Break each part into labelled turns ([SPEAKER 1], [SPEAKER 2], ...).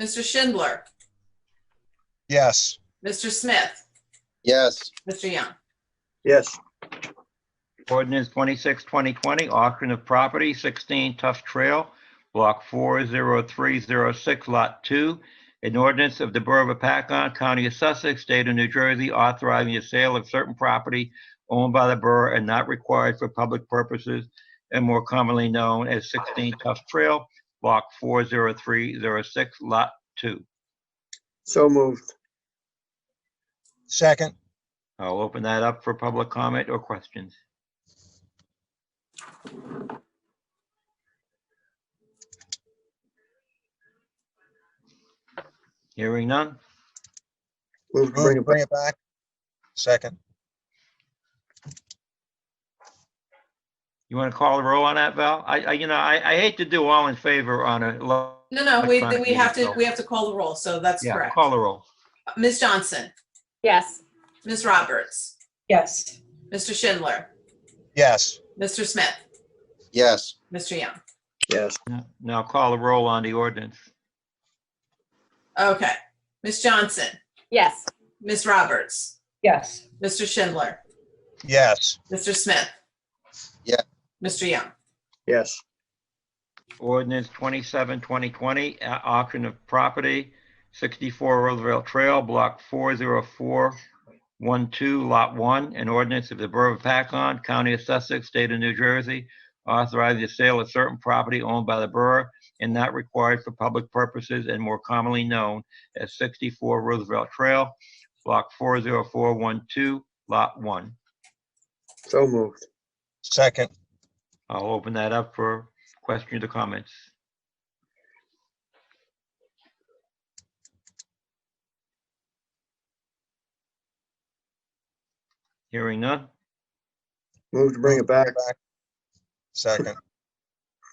[SPEAKER 1] Mr. Schindler,
[SPEAKER 2] Yes.
[SPEAKER 1] Mr. Smith,
[SPEAKER 2] Yes.
[SPEAKER 1] Mr. Young.
[SPEAKER 3] Yes.
[SPEAKER 4] Ordinance 26, 2020, auction of property, 16 Tuff Trail, Block 40306, Lot 2. An ordinance of the Borough of Paccon, County of Sussex, State of New Jersey, authorizing the sale of certain property owned by the borough and not required for public purposes and more commonly known as 16 Tuff Trail, Block 40306, Lot 2.
[SPEAKER 3] So moved.
[SPEAKER 2] Second.
[SPEAKER 4] I'll open that up for public comment or questions. Hearing none?
[SPEAKER 3] Move to bring
[SPEAKER 2] Move,
[SPEAKER 3] it back.
[SPEAKER 2] bring it back. Second.
[SPEAKER 4] You want to call the roll on that, Val? I, I, you know, I, I hate to do all in favor on a, lo-
[SPEAKER 1] No, no, we,
[SPEAKER 4] Electronic
[SPEAKER 1] we have to,
[SPEAKER 4] meeting.
[SPEAKER 1] we have to call the roll, so that's
[SPEAKER 4] yeah,
[SPEAKER 1] correct.
[SPEAKER 4] call the roll.
[SPEAKER 1] Ms. Johnson,
[SPEAKER 5] yes,
[SPEAKER 1] Ms. Roberts,
[SPEAKER 6] yes,
[SPEAKER 1] Mr. Schindler,
[SPEAKER 2] Yes.
[SPEAKER 1] Mr. Smith,
[SPEAKER 2] Yes.
[SPEAKER 1] Mr. Young.
[SPEAKER 3] Yes.
[SPEAKER 4] Now call the roll on the ordinance.
[SPEAKER 1] Okay. Ms. Johnson,
[SPEAKER 5] yes,
[SPEAKER 1] Ms. Roberts,
[SPEAKER 6] yes,
[SPEAKER 1] Mr. Schindler,
[SPEAKER 2] Yes.
[SPEAKER 1] Mr. Smith.
[SPEAKER 2] Yeah.
[SPEAKER 1] Mr. Young.
[SPEAKER 3] Yes.
[SPEAKER 4] Ordinance 27, 2020, a- uh, auction of property, 64 Roosevelt Trail, Block 40412, Lot 1, an ordinance of the Borough of Paccon, County of Sussex, State of New Jersey, authorizing the sale of certain property owned by the borough and not required for public purposes and more commonly known as 64 Roosevelt Trail, Block 40412, Lot 1.
[SPEAKER 3] So moved.
[SPEAKER 2] Second.
[SPEAKER 4] I'll open that up for questions or comments. Hearing none,
[SPEAKER 3] Move to bring it back.
[SPEAKER 2] Second.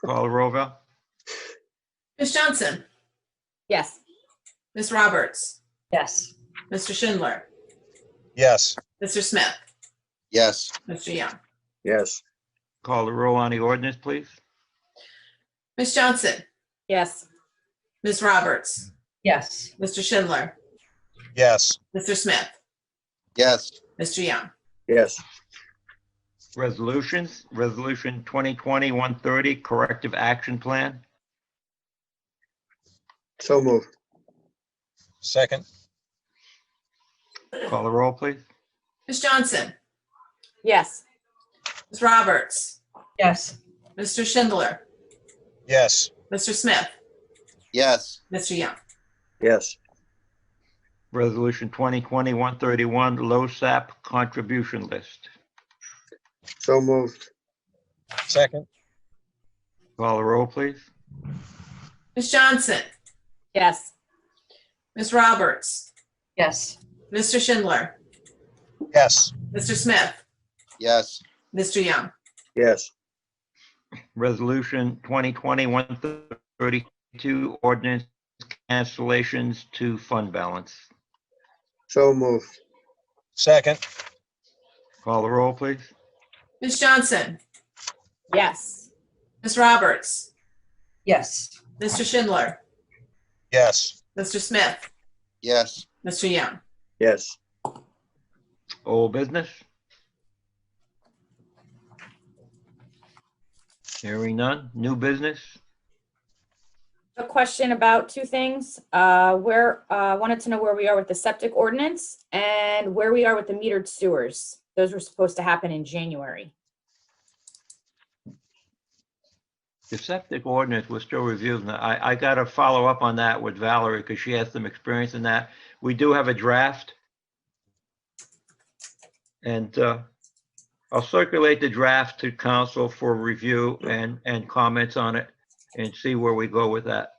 [SPEAKER 4] call the roll, Val?
[SPEAKER 1] Ms. Johnson,
[SPEAKER 5] yes,
[SPEAKER 1] Ms. Roberts,
[SPEAKER 6] yes,
[SPEAKER 1] Mr. Schindler,
[SPEAKER 2] Yes.
[SPEAKER 1] Mr. Smith,
[SPEAKER 2] Yes.
[SPEAKER 1] Mr. Young.
[SPEAKER 3] Yes.
[SPEAKER 4] Call the roll on the ordinance, please.
[SPEAKER 1] Ms. Johnson,
[SPEAKER 5] yes,
[SPEAKER 1] Ms. Roberts,
[SPEAKER 6] yes,
[SPEAKER 1] Mr. Schindler,
[SPEAKER 2] Yes.
[SPEAKER 1] Mr. Smith,
[SPEAKER 2] Yes.
[SPEAKER 1] Mr. Young.
[SPEAKER 3] Yes.
[SPEAKER 4] Resolutions, Resolution 2020-130, Corrective Action Plan.
[SPEAKER 3] So moved.
[SPEAKER 2] Second.
[SPEAKER 4] Call the roll, please.
[SPEAKER 1] Ms. Johnson,
[SPEAKER 5] yes,
[SPEAKER 1] Ms. Roberts,
[SPEAKER 6] yes,
[SPEAKER 1] Mr. Schindler,
[SPEAKER 2] Yes.
[SPEAKER 1] Mr. Smith,
[SPEAKER 2] Yes.
[SPEAKER 1] Mr. Young.
[SPEAKER 3] Yes.
[SPEAKER 4] Resolution 2020-131, LoSAP Contribution List.
[SPEAKER 3] So moved.
[SPEAKER 2] Second.
[SPEAKER 4] Call the roll, please.
[SPEAKER 1] Ms. Johnson,
[SPEAKER 5] yes,
[SPEAKER 1] Ms. Roberts,
[SPEAKER 6] yes,
[SPEAKER 1] Mr. Schindler,
[SPEAKER 2] Yes.
[SPEAKER 1] Mr. Smith,
[SPEAKER 2] Yes.
[SPEAKER 1] Mr. Young.
[SPEAKER 3] Yes.
[SPEAKER 4] Resolution 2020-132, ordinance cancellations to fund balance.
[SPEAKER 3] So moved.
[SPEAKER 2] Second.
[SPEAKER 4] Call the roll, please.
[SPEAKER 1] Ms. Johnson,
[SPEAKER 5] yes,
[SPEAKER 1] Ms. Roberts,
[SPEAKER 6] yes,
[SPEAKER 1] Mr. Schindler,
[SPEAKER 2] Yes.
[SPEAKER 1] Mr. Smith,
[SPEAKER 2] Yes.
[SPEAKER 1] Mr. Young.
[SPEAKER 3] Yes.
[SPEAKER 4] Old business? Hearing none. New business?
[SPEAKER 5] a question about two things. Uh, where, uh, wanted to know where we are with the septic ordinance and where we are with the metered sewers. Those were supposed to happen in January.
[SPEAKER 4] The septic ordinance, we're still reviewing. that. I, I got to follow up on that with Valerie because she has some experience in that. We do have a draft. And uh, I'll circulate the draft to council for review and, and comments on it and see where we go with that.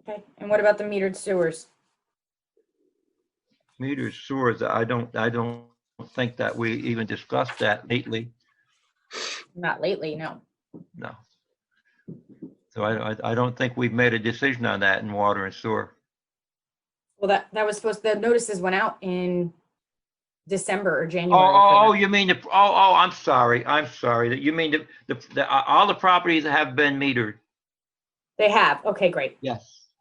[SPEAKER 5] Okay, and what about the metered sewers?
[SPEAKER 4] Meter sewers, I don't, I don't think that we even discussed that lately,
[SPEAKER 5] Not lately, no.
[SPEAKER 4] no. So I, I- I don't think we've made a decision on that in water and sewer.
[SPEAKER 5] Well, that, that was supposed, the notices went out in December or
[SPEAKER 4] Oh,
[SPEAKER 5] January.
[SPEAKER 4] oh, oh, you mean the, oh, oh, I'm sorry, I'm sorry, that you uh, mean the, the, the- all the properties have been metered?
[SPEAKER 5] They have, okay, great.
[SPEAKER 4] Yes.